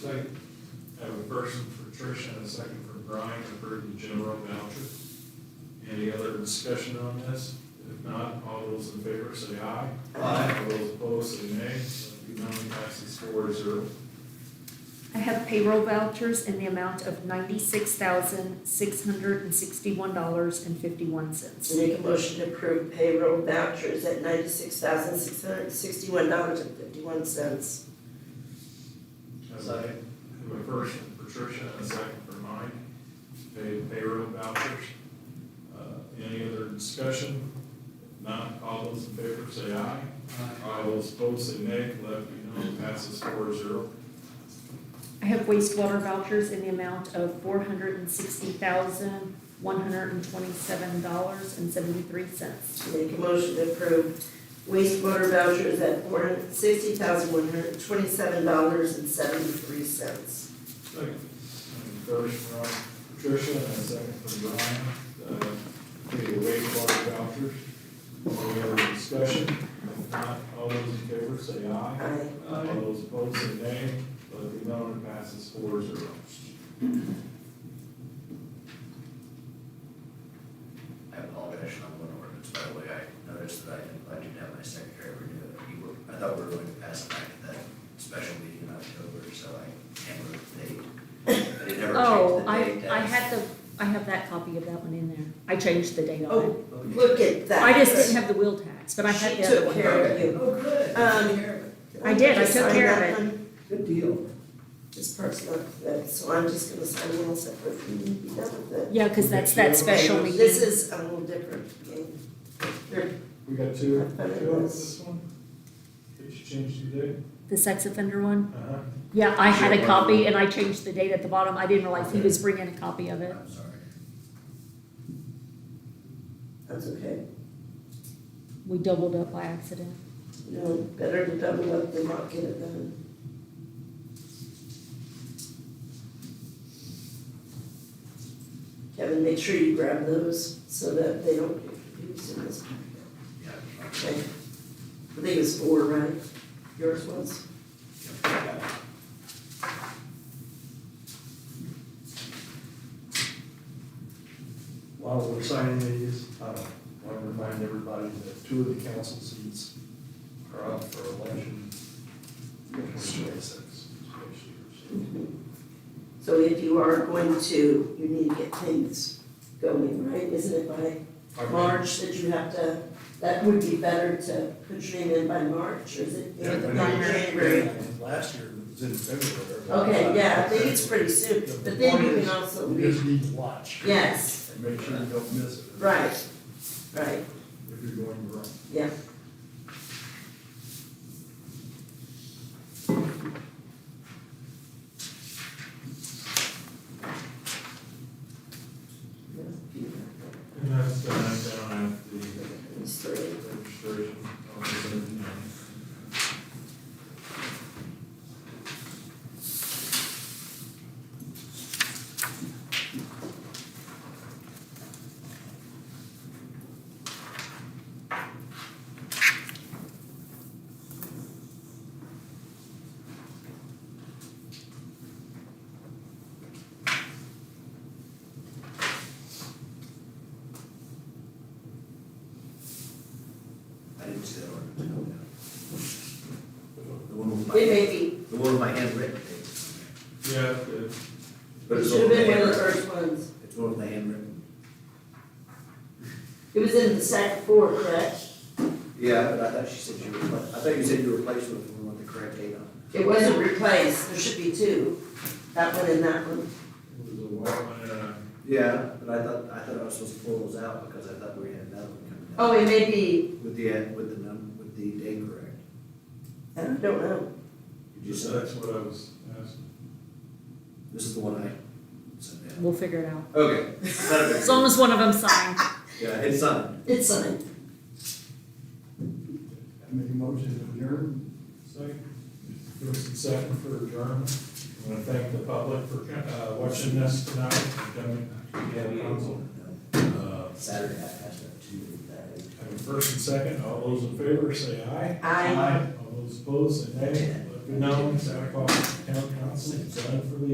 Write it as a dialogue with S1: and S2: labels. S1: Second. I have a first for Tricia and a second for Brian to approve the general voucher. Any other discussion on this? If not, all those in favor say aye. Aye. All those opposed say nay. So the motion passes four to zero.
S2: I have payroll vouchers in the amount of ninety-six thousand, six hundred and sixty-one dollars and fifty-one cents.
S3: Make a motion to approve payroll vouchers at ninety-six thousand, six hundred and sixty-one dollars and fifty-one cents.
S1: Second. I have a first for Tricia and a second for Mike. Pay payroll vouchers. Uh, Any other discussion? If not, all those in favor say aye. All those opposed say nay. Let me know. Passes four to zero.
S2: I have wastewater vouchers in the amount of four hundred and sixty thousand, one hundred and twenty-seven dollars and seventy-three cents.
S3: Make a motion to approve wastewater vouchers at four hundred sixty thousand, one hundred and twenty-seven dollars and seventy-three cents.
S1: Second. First from Patricia and a second from Brian, uh, for the wastewater vouchers. Any other discussion? If not, all those in favor say aye.
S3: Aye.
S1: All those opposed say nay. Let it be known it passes four zero.
S4: I apologize on one ordinance, by the way, I noticed that I didn't, I didn't have my secretary renew it. You were, I thought we were going to pass it back at that special meeting in October, so I can't remember the date. But it never
S2: Oh,
S4: changed
S2: I,
S4: the date.
S2: I had the, I have that copy of that one in there. I changed the date on it.
S3: Oh, look at that.
S2: I just didn't have the wheel tax, but I had
S3: She
S2: the other
S3: took
S2: one.
S3: care of you.
S4: Oh, good.
S3: Um,
S2: I did, I
S3: Just
S2: took
S3: sign
S2: care of
S3: that
S2: it.
S3: one.
S4: Good deal.
S3: This part's not good, so I'm just gonna sign one separate, and be done with it.
S2: Yeah, because that's that special meeting.
S3: This is a little different. Here,
S1: We got two,
S3: I thought it
S1: two on
S3: was-
S1: this one? Did you change the date?
S2: The sex offender one?
S1: Uh-huh.
S2: Yeah, I had a copy and I changed the date at the bottom. I didn't realize he was bringing a copy of it.
S4: I'm sorry.
S3: That's okay.
S2: We doubled up by accident.
S3: No, better to double up than not get it done. Kevin, make sure you grab those so that they don't get confused in this.
S4: Yeah.
S3: Okay. I think it's four, right? Yours was?
S5: While we're signing these, uh, I want to remind everybody that two of the council seats are up for election in 2026.
S3: So if you are going to, you need to get things going, right? Isn't it by March that you have to, that would be better to put your name in by March, or is it?
S5: Yeah, I
S3: By
S5: know.
S3: January.
S5: Last year, it was in February.
S3: Okay, yeah, I think it's pretty soon, but then you can also
S5: We just
S3: leave,
S5: need to watch.
S3: yes,
S5: And make sure you don't miss it.
S3: right, right,
S5: If you're going to run.
S3: yeah.
S1: And that's, uh, down at the
S3: These three.
S1: registration office.
S4: I didn't see that ordinance. The one with my,
S3: We may be,
S4: the one with my handwritten date.
S1: Yeah, good.
S4: But
S3: it
S4: it's
S3: should have
S4: one
S3: been one of
S4: with my
S3: the
S4: handwritten-
S3: first ones.
S4: It's one with my handwritten.
S3: It was in the sack four, correct?
S4: Yeah, but I thought she said you replaced, I thought you said you replaced it with the one with the correct date on it.
S3: It wasn't replaced, there should be two, that one and that one.
S1: It was a while, and, uh,
S4: Yeah, but I thought, I thought I was supposed to pull those out because I thought we had another one coming down.
S3: Oh, it may be,
S4: With the, with the num, with the date correct.
S3: I don't know,
S4: Did you
S1: So
S4: say,
S1: that's what I was asking.
S4: this is the one I sent down?
S2: We'll figure it out.
S4: Okay. not a big
S2: As long as one of them signed.
S4: deal. Yeah, it's signed.
S3: it's signed.
S5: I make a motion to adjourn.
S1: Second, first and second for adjournment. I want to thank the public for uh, watching this tonight, and coming to the council. Uh,
S4: Saturday, I passed out two, that,
S1: have a First and second, all those in favor say aye.
S3: Aye.
S1: All those opposed say nay. Let it be known as Sagacog Town Council, is done